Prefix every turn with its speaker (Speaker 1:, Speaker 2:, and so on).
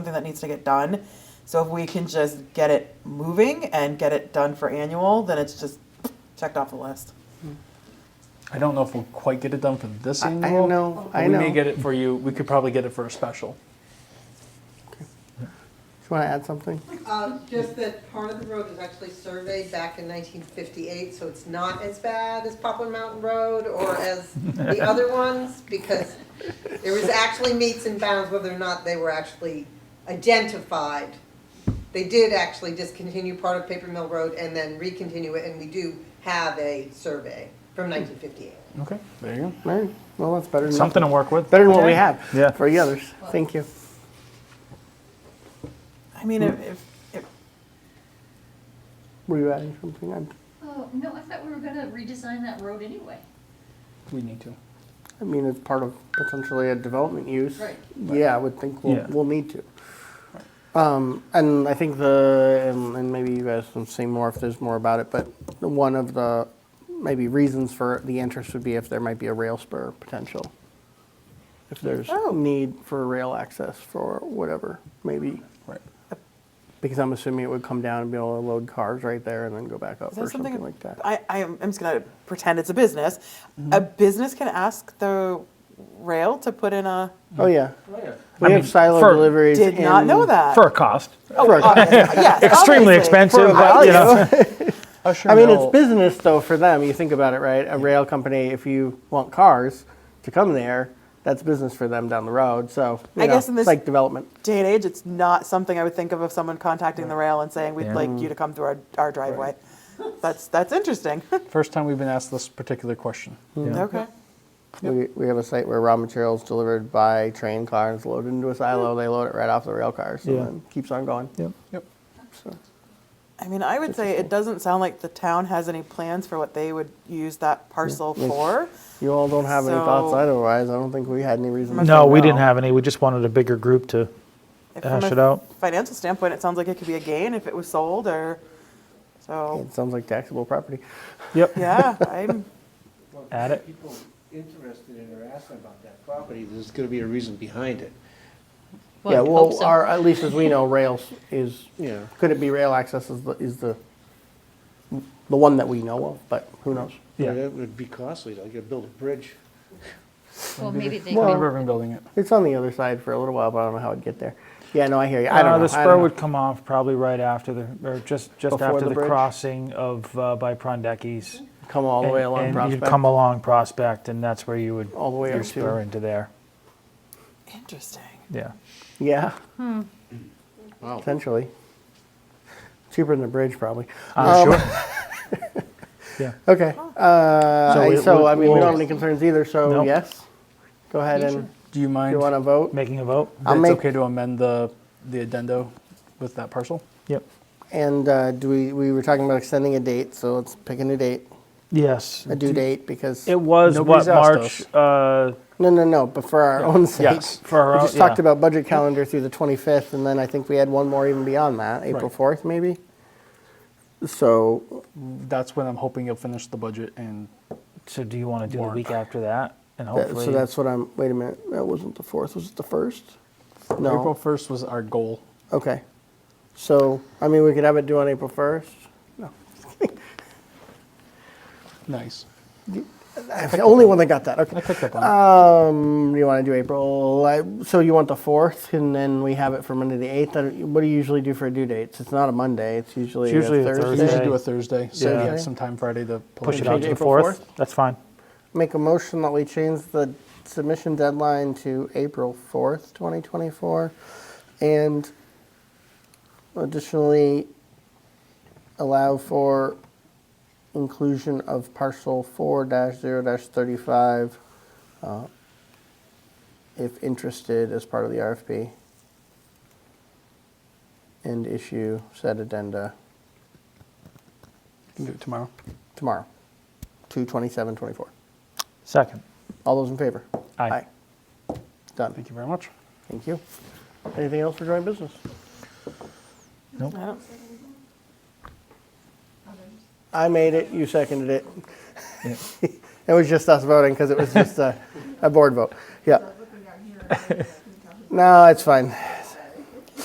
Speaker 1: something that needs to get done. So if we can just get it moving and get it done for annual, then it's just checked off the list.
Speaker 2: I don't know if we'll quite get it done for this
Speaker 3: I, I
Speaker 2: annual.
Speaker 3: know.
Speaker 2: but
Speaker 3: I
Speaker 2: we
Speaker 3: know.
Speaker 2: may get it for you. We could probably get it for a special.
Speaker 3: Do you want to add something?
Speaker 4: Uh, Just that part of the road was actually surveyed back in 1958, so it's not as bad as Poplar Mountain Road or as the other ones, because there was actually meets and bounds whether or not they were actually identified. They did actually discontinue part of Paper Mill Road and then recontinue it, and we do have a survey from 1958.
Speaker 2: Okay, there you
Speaker 3: All right. Well, that's better
Speaker 2: go.
Speaker 3: than
Speaker 2: Something
Speaker 3: nothing.
Speaker 2: to work with.
Speaker 3: Better than what we have
Speaker 2: Yeah.
Speaker 3: for the others. Thank you.
Speaker 1: I mean, if, if, if
Speaker 3: Were you adding something? I'm,
Speaker 5: Oh, no, I thought we were gonna redesign that road anyway.
Speaker 2: We need to.
Speaker 3: I mean, it's part of potentially a development use.
Speaker 5: Right.
Speaker 3: Yeah, I would think we'll,
Speaker 2: Yeah.
Speaker 3: we'll need to. Um, and I think the, and, and maybe you guys can say more if there's more about it, but one of the maybe reasons for the interest would be if there might be a rail spur potential. If there's need for rail access for whatever, maybe.
Speaker 2: Right.
Speaker 3: Because I'm assuming it would come down and be able to load cars right there and then go back up
Speaker 1: Is
Speaker 3: or
Speaker 1: that something,
Speaker 3: something like that. Mm-hmm.
Speaker 1: I, I am, I'm just gonna pretend it's a business. A business can ask the rail to put in a.
Speaker 3: Oh, yeah.
Speaker 2: yeah.
Speaker 3: We
Speaker 6: I
Speaker 3: have
Speaker 6: mean,
Speaker 3: silo
Speaker 6: for-
Speaker 3: deliveries.
Speaker 1: Did not
Speaker 3: in-
Speaker 1: know that. Oh, uh,
Speaker 6: for a cost.
Speaker 3: for a-
Speaker 1: Yes, obviously.
Speaker 6: Extremely expensive,
Speaker 3: For
Speaker 6: but you know.
Speaker 3: I mean, it's business though for them. You think about it, right? A rail company, if you want cars to come there, that's business for them down the road. So you
Speaker 1: I
Speaker 3: know,
Speaker 1: guess in
Speaker 3: it's
Speaker 1: this-
Speaker 3: like development.
Speaker 1: Day and age, it's not something I would think of of someone contacting the rail and saying, we'd like you to come through our, our driveway. That's, that's interesting.
Speaker 2: First time we've been asked this particular question.
Speaker 1: Okay.
Speaker 3: We, we have a site where raw materials delivered by train cars loaded into a
Speaker 1: Mm.
Speaker 3: silo. They load it right off the rail cars and
Speaker 6: Yeah.
Speaker 3: then keeps on going.
Speaker 6: Yep.
Speaker 2: Yep.
Speaker 3: So,
Speaker 1: I mean, I would say it doesn't sound like the town has any plans for what they would use that parcel
Speaker 3: Yeah.
Speaker 1: for.
Speaker 3: you all don't have any thoughts
Speaker 1: So-
Speaker 3: otherwise. I don't think we had any reason. to
Speaker 6: No,
Speaker 3: think
Speaker 6: we
Speaker 3: about it.
Speaker 6: didn't have any. We just wanted a bigger group to.
Speaker 1: If from
Speaker 6: Hash
Speaker 1: a
Speaker 6: it out.
Speaker 1: Financial standpoint, it sounds like it could be a gain if it was sold or, so,
Speaker 3: It sounds like taxable property.
Speaker 6: Yep.
Speaker 1: yeah, I'm,
Speaker 7: Well,
Speaker 6: Add
Speaker 7: if
Speaker 6: it.
Speaker 7: People interested in or asking about that property, there's gonna be a reason behind it.
Speaker 3: yeah,
Speaker 5: Well, I
Speaker 3: well,
Speaker 5: hope so.
Speaker 3: our, uh, at least as we know, rails is
Speaker 7: Yeah.
Speaker 3: could it be rail access is the is the the one that we know of, but who knows?
Speaker 6: Yeah.
Speaker 7: That would be costly, like you build a bridge.
Speaker 5: Well, maybe they
Speaker 3: Well-
Speaker 2: Well,
Speaker 5: could,
Speaker 2: Ribbon building it.
Speaker 3: It's on the other side for a little while, but I don't know how it'd get there. Yeah, no, I hear you. I don't
Speaker 6: Uh,
Speaker 3: know.
Speaker 6: the
Speaker 3: I
Speaker 6: spur
Speaker 3: don't know.
Speaker 6: would come off probably right after the, or just, just
Speaker 3: Before
Speaker 6: after
Speaker 3: the
Speaker 6: the
Speaker 3: bridge?
Speaker 6: crossing of, uh, by Prondecki's.
Speaker 3: come all the way along
Speaker 6: And- And
Speaker 3: Prospect.
Speaker 6: you'd come along Prospect and that's where you would.
Speaker 3: All the way
Speaker 6: your
Speaker 3: up to-
Speaker 6: spur into there.
Speaker 1: interesting.
Speaker 6: Yeah.
Speaker 3: yeah,
Speaker 7: Wow.
Speaker 3: potentially. Cheaper than the bridge, probably.
Speaker 6: I'm
Speaker 3: Um,
Speaker 6: sure. Yeah.
Speaker 3: Okay. Uh,
Speaker 6: So
Speaker 3: I- so,
Speaker 6: it would-
Speaker 3: I mean, we
Speaker 6: we'll-
Speaker 3: don't have any concerns either. So
Speaker 6: No.
Speaker 3: yes, go ahead and
Speaker 2: Do you mind
Speaker 3: you want to vote
Speaker 6: Making a vote?
Speaker 3: I'll
Speaker 2: that it's
Speaker 3: make-
Speaker 2: okay to amend the, the addendo with that parcel?
Speaker 6: Yep.
Speaker 3: and uh, do we we were talking about extending a date, so let's pick a new date,
Speaker 6: Yes.
Speaker 3: a due date because
Speaker 6: It was
Speaker 2: Nobody's
Speaker 6: what,
Speaker 2: asked
Speaker 6: March, uh,
Speaker 3: no, no, no, but for our own sake.
Speaker 6: yes, for our
Speaker 3: We
Speaker 6: own,
Speaker 3: just talked
Speaker 6: yeah.
Speaker 3: about budget calendar through the 25th, and then I think we had one more even beyond that, April
Speaker 2: Right.
Speaker 3: 4th, maybe. So,
Speaker 2: That's when I'm hoping you'll finish the budget and
Speaker 6: So do you want to do the
Speaker 2: Warrant.
Speaker 6: week after that? And
Speaker 3: that-
Speaker 6: hopefully.
Speaker 3: so that's what I'm. Wait a minute, that wasn't the 4th. Was it the 1st? No.
Speaker 2: April 1st was our goal.
Speaker 3: Okay. So, I mean, we could have it due on April 1st.
Speaker 2: Nice.
Speaker 3: I'm the only one that got that. Okay.
Speaker 2: I picked up on
Speaker 3: Uh, Um, you want to do April? I- So you want the 4th, and then we have it for Monday the 8th. I don't- What do you usually do for due dates? It's not a Monday. It's usually,
Speaker 6: It's usually
Speaker 3: a
Speaker 6: a
Speaker 3: Thursday.
Speaker 2: it.
Speaker 6: Thursday.
Speaker 2: We usually do a Thursday, so
Speaker 6: Yeah.
Speaker 2: yeah, sometime Friday to pull
Speaker 6: Push
Speaker 3: Can
Speaker 6: it
Speaker 3: we
Speaker 6: out
Speaker 3: change
Speaker 6: to the
Speaker 3: April
Speaker 6: 4th?
Speaker 3: 4th?
Speaker 6: That's fine.
Speaker 3: Make a motion that we change the submission deadline to April 4th, 2024, and additionally allow for inclusion of parcel 4-0-35 uh, if interested as part of the RFP and issue said addenda
Speaker 2: Can do it tomorrow.
Speaker 3: tomorrow, 2/27/24.
Speaker 6: Second.
Speaker 3: All those in favor?
Speaker 6: Aye.
Speaker 3: Done.
Speaker 2: Thank you very much.
Speaker 3: Thank you. Anything else for joint business?
Speaker 1: I don't,
Speaker 3: I made it, you seconded it. It was just us voting because it was just a, a board vote. Yeah. No, it's fine.